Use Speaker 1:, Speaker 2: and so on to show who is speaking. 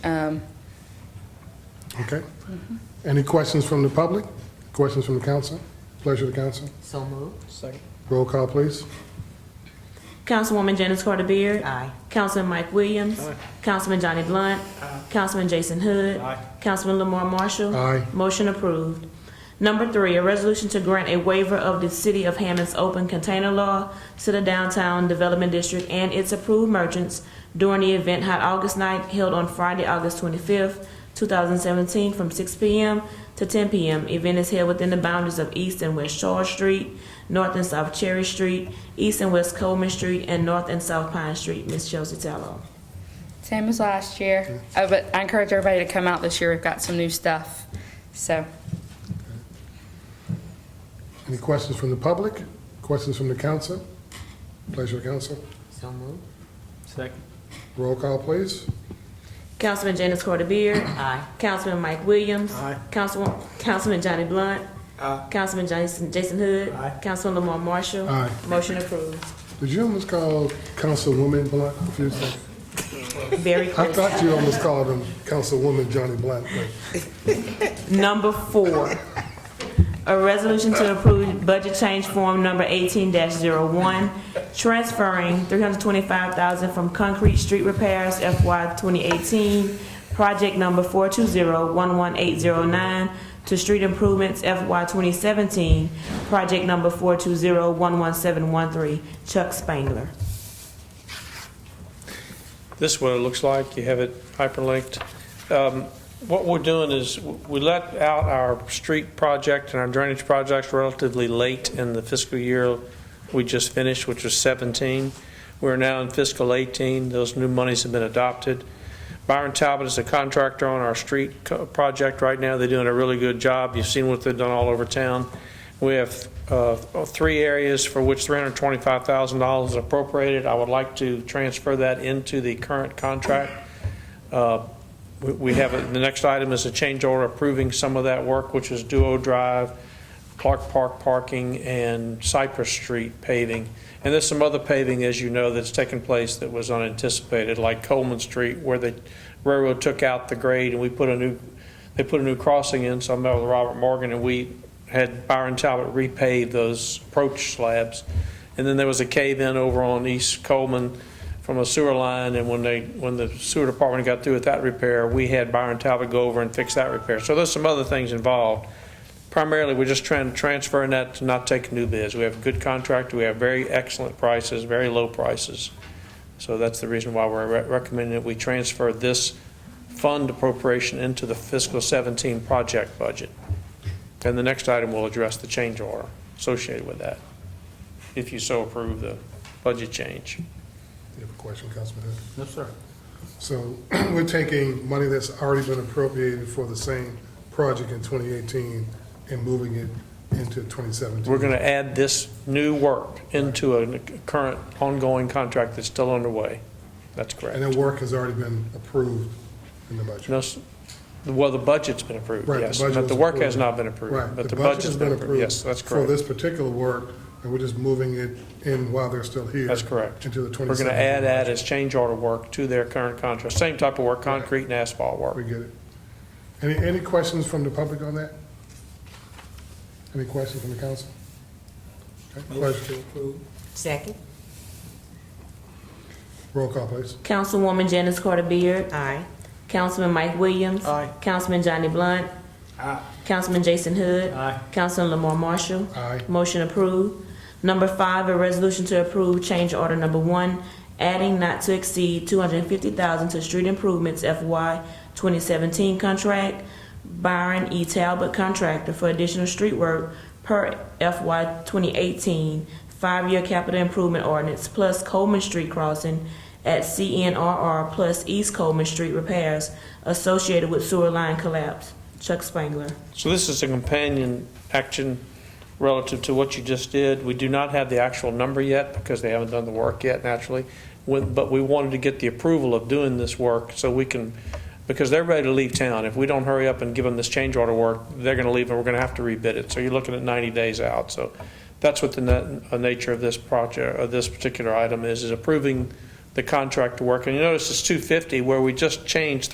Speaker 1: Um,
Speaker 2: Okay. Any questions from the public? Questions from the council? Pleasure to council.
Speaker 3: So moved. Second.
Speaker 2: Roll call, please.
Speaker 4: Councilwoman Janice Carter Beard.
Speaker 3: Aye.
Speaker 4: Councilman Mike Williams. Councilman Johnny Blunt. Councilman Jason Hood. Councilman Lamar Marshall.
Speaker 2: Aye.
Speaker 4: Motion approved. Number three, a resolution to grant a waiver of the City of Hammond's open container law to the Downtown Development District and its approved merchants during the event Hot August Night held on Friday, August twenty-fifth, two thousand seventeen, from six P M. to ten P M. Event is held within the boundaries of East and West Shore Street, North and South Cherry Street, East and West Coleman Street, and North and South Pine Street. Ms. Chelsea Tallow.
Speaker 1: Same as last year, Uh, but I encourage everybody to come out this year. We've got some new stuff. So,
Speaker 2: Any questions from the public? Questions from the council? Pleasure to council.
Speaker 3: So moved.
Speaker 5: Second.
Speaker 2: Roll call, please.
Speaker 4: Councilman Janice Carter Beard.
Speaker 3: Aye.
Speaker 4: Councilman Mike Williams.
Speaker 5: Aye.
Speaker 4: Councilman, Councilman Johnny Blunt.
Speaker 5: Aye.
Speaker 4: Councilman Jason, Jason Hood.
Speaker 5: Aye.
Speaker 4: Councilman Lamar Marshall.
Speaker 2: Aye.
Speaker 4: Motion approved.
Speaker 2: Did you almost call Councilwoman Blunt? a few seconds?
Speaker 4: Very
Speaker 2: I
Speaker 4: close.
Speaker 2: thought you almost called him Councilwoman Johnny Blunt. but-
Speaker 4: Number four, a resolution to approve budget change form number eighteen one transferring three hundred twenty-five thousand from concrete street repairs FY twenty eighteen, project number four two zero one one eight zero nine to street improvements FY twenty seventeen, project number four two zero one one seven one three, Chuck Spangler.
Speaker 5: This is what it looks like. You have it hyperlinked. Um, What we're doing is w- we let out our street project and our drainage projects relatively late in the fiscal year we just finished, which was 17. We're now in fiscal 18. Those new monies have been adopted. Byron Talbot is a contractor on our street co- project right now. They're doing a really good job. You've seen what they've done all over town. We have uh, three areas for which $325,000 is appropriated. I would like to transfer that into the current contract. Uh, We we have, a- the next item is a change order approving some of that work, which is Duo Drive, Clark Park parking, and Cypress Street paving. And there's some other paving, as you know, that's taken place that was unanticipated, like Coleman Street, where the railroad took out the grade and we put a new, they put a new crossing in, so I met with Robert Morgan, and we had Byron Talbot repave those approach slabs. And then there was a cave-in over on East Coleman from a sewer line, and when they, when the sewer department got through with that repair, we had Byron Talbot go over and fix that repair. So there's some other things involved. Primarily, we're just trying to transfer that to not take new bids. We have a good contract, we have very excellent prices, very low prices. So that's the reason why we're re- recommending that we transfer this fund appropriation into the fiscal 17 project budget. And the next item will address the change order associated with that, if you so approve the budget change.
Speaker 2: You have a question, Councilman Hood?
Speaker 5: Yes, sir.
Speaker 2: So we're taking money that's already been appropriated for the same project in 2018 and moving it into 2017.
Speaker 5: We're going to add this new work into a current ongoing contract that's still underway. That's
Speaker 2: And
Speaker 5: correct.
Speaker 2: that work has already been approved in the budget.
Speaker 5: No, s- Well, the budget's been approved,
Speaker 2: Right, the
Speaker 5: yes,
Speaker 2: budget
Speaker 5: but the
Speaker 2: was
Speaker 5: work has
Speaker 2: approved.
Speaker 5: not been approved.
Speaker 2: Right,
Speaker 5: But the budget's been approved, yes, that's
Speaker 2: For
Speaker 5: correct.
Speaker 2: this particular work, and we're just moving it in while they're still here.
Speaker 5: That's correct.
Speaker 2: Into the
Speaker 5: We're
Speaker 2: 2017.
Speaker 5: going to add that as change order work to their current contract, same type of work, concrete and asphalt
Speaker 2: We
Speaker 5: work.
Speaker 2: get it. Any, any questions from the public on that? Any questions from the council? Okay, Pleasure.
Speaker 3: Second.
Speaker 2: Roll call, please.
Speaker 4: Councilwoman Janice Carter Beard.
Speaker 3: Aye.
Speaker 4: Councilman Mike Williams.
Speaker 5: Aye.
Speaker 4: Councilman Johnny Blunt.
Speaker 5: Aye.
Speaker 4: Councilman Jason Hood.
Speaker 5: Aye.
Speaker 4: Councilman Lamar Marshall.
Speaker 2: Aye.
Speaker 4: Motion approved. Number five, a resolution to approve change order number one, adding not to exceed two hundred and fifty thousand to street improvements FY twenty seventeen contract. Byron E. Talbot contractor for additional street work per FY 2018 eighteen, five-year capital improvement ordinance plus Coleman Street crossing at CNRR plus East Coleman Street repairs associated with sewer line collapse. Chuck Spangler.
Speaker 5: So this is a companion action relative to what you just did. We do not have the actual number yet because they haven't done the work yet naturally. When- But we wanted to get the approval of doing this work so we can, because they're ready to leave town. If we don't hurry up and give them this change order work, they're going to leave and we're going to have to rebid it. So you're looking at 90 days out. So that's what the na- uh, nature of this project, of this particular item is, is approving the contract to work. And you notice it's 250 where we just changed